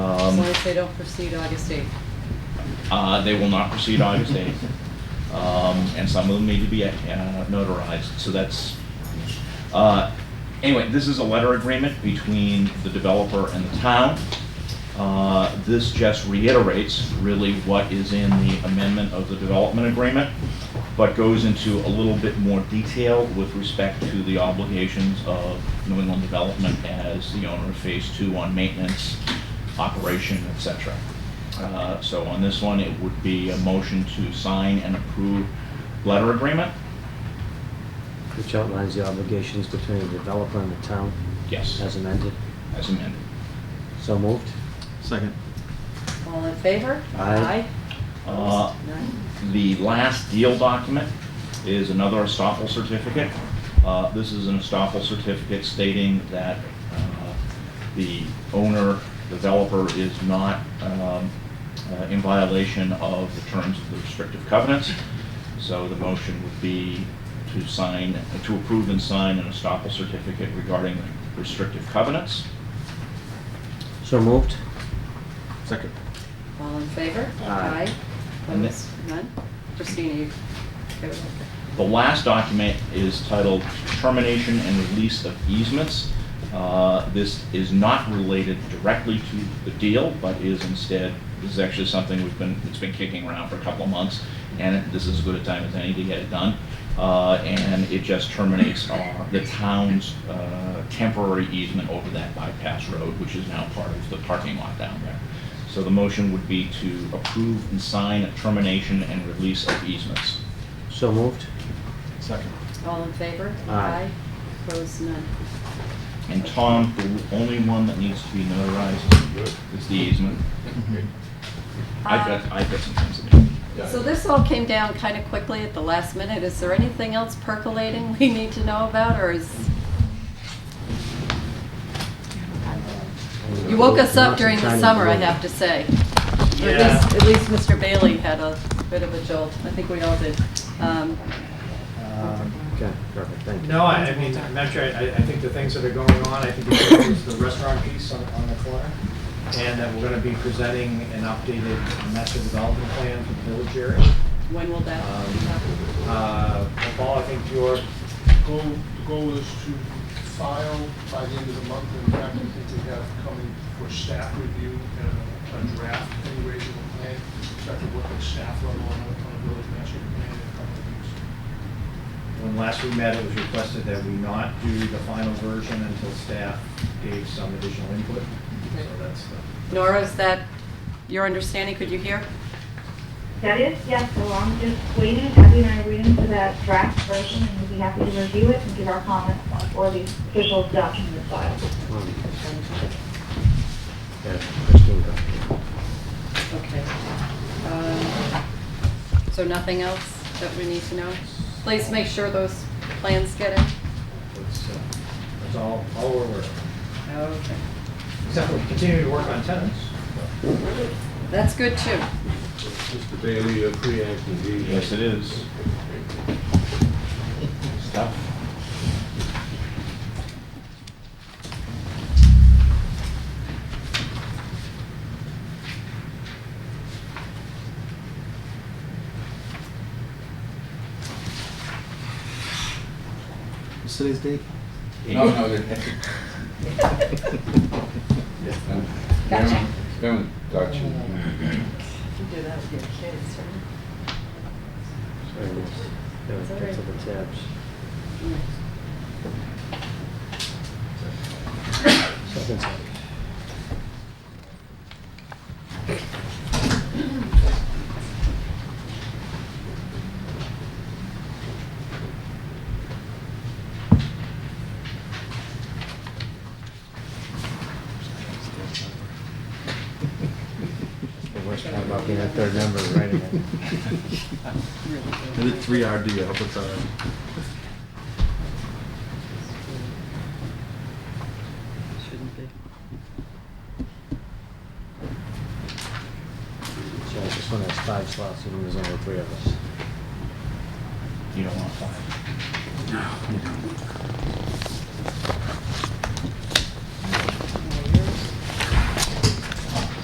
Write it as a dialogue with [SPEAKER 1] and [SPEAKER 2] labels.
[SPEAKER 1] Um,
[SPEAKER 2] What if they don't proceed August 8th?
[SPEAKER 1] Uh, They will not proceed August 8th. Um, And some of them need to be uh, notarized, so that's, uh, anyway, this is a letter agreement between the developer and the town. Uh, This just reiterates really what is in the amendment of the development agreement, but goes into a little bit more detail with respect to the obligations of New England Development as the owner of Phase 2 on maintenance, operation, et cetera. Uh, So on this one, it would be a motion to sign and approve letter agreement?
[SPEAKER 3] Which outlines the obligations between the developer and the town
[SPEAKER 1] Yes,
[SPEAKER 3] as amended.
[SPEAKER 1] as amended.
[SPEAKER 3] So moved.
[SPEAKER 4] Second.
[SPEAKER 2] All in favor?
[SPEAKER 3] Aye.
[SPEAKER 1] Uh,
[SPEAKER 2] Opposed? None?
[SPEAKER 1] The last deal document is another estoppel certificate. Uh, This is an estoppel certificate stating that uh, the owner, developer is not um, uh, in violation of the terms of the restrictive covenants. So the motion would be to sign, to approve and sign an estoppel certificate regarding restrictive covenants.
[SPEAKER 3] So moved.
[SPEAKER 4] Second.
[SPEAKER 2] All in favor?
[SPEAKER 3] Aye.
[SPEAKER 1] And
[SPEAKER 2] Opposed? None? Christina, you okay with that?
[SPEAKER 1] The last document is titled Termination and Release of Easements. Uh, This is not related directly to the deal, but is instead, this is actually something we've been, it's been kicking around for a couple of months, and this is as good a time as any to get it done. Uh, And it just terminates our- the town's uh, temporary easement over that bypass road, which is now part of the parking lot down there. So the motion would be to approve and sign a termination and release of easements.
[SPEAKER 3] So moved.
[SPEAKER 4] Second.
[SPEAKER 2] All in favor?
[SPEAKER 3] Aye.
[SPEAKER 2] Opposed? None?
[SPEAKER 1] And Tom, the only one that needs to be notarized is the easement. I've got, I've got some things to do.
[SPEAKER 2] So this all came down kind of quickly at the last minute. Is there anything else percolating we need to know about, or is, you woke us up during the summer, I have to say. Or at least- At least Mr. Bailey had a bit of a jolt. I think we all did. Um,
[SPEAKER 5] Um,
[SPEAKER 3] Okay, perfect, thank you.
[SPEAKER 5] No, I I mean, I'm not sure, I, I think the things that are going on, I think it's the restaurant piece on, on the corner. And that we're gonna be presenting an updated master development plan for the village area.
[SPEAKER 2] When will that
[SPEAKER 5] Um,
[SPEAKER 2] be happening?
[SPEAKER 5] Uh, Paul, I think your
[SPEAKER 6] Goal, the goal is to file by the end of the month, in fact, I think we have coming for staff review, uh, a draft, any raise of a plan, start to work at staff level on a, on a village master plan in a couple of weeks.
[SPEAKER 5] When last we met, it was requested that we not do the final version until staff gave some additional input. So that's the,
[SPEAKER 2] Nora, is that your understanding? Could you hear?
[SPEAKER 7] That is, yes, so I'm just waiting, Abby and I are waiting for that draft version, and we'd be happy to review it and give our comments before the official document is filed.
[SPEAKER 3] Um, yeah, Christine got it.
[SPEAKER 2] Okay. Um, So nothing else that we need to know? Please make sure those plans get in.
[SPEAKER 5] that's, uh, that's all, all we're aware of.
[SPEAKER 2] Okay.
[SPEAKER 5] Except we continue to work on tenants.
[SPEAKER 2] That's good too.
[SPEAKER 8] Mr. Bailey, you're pre-acting the...
[SPEAKER 1] Yes, it is. Stuff.
[SPEAKER 4] What's today's date?
[SPEAKER 9] No, no, that- that's.
[SPEAKER 2] Gotcha.
[SPEAKER 9] Don't, got you.
[SPEAKER 2] You do that with your kids,
[SPEAKER 3] Very nice. There we
[SPEAKER 2] It's all
[SPEAKER 3] go,
[SPEAKER 2] right.
[SPEAKER 3] to the tabs. Second. The worst part about being a third member is writing it.
[SPEAKER 4] Is it three RD? I hope it's all right.
[SPEAKER 2] Shouldn't be.
[SPEAKER 3] So this one has five slots, and there's only three of us.
[SPEAKER 1] You don't want five.
[SPEAKER 2] Mm.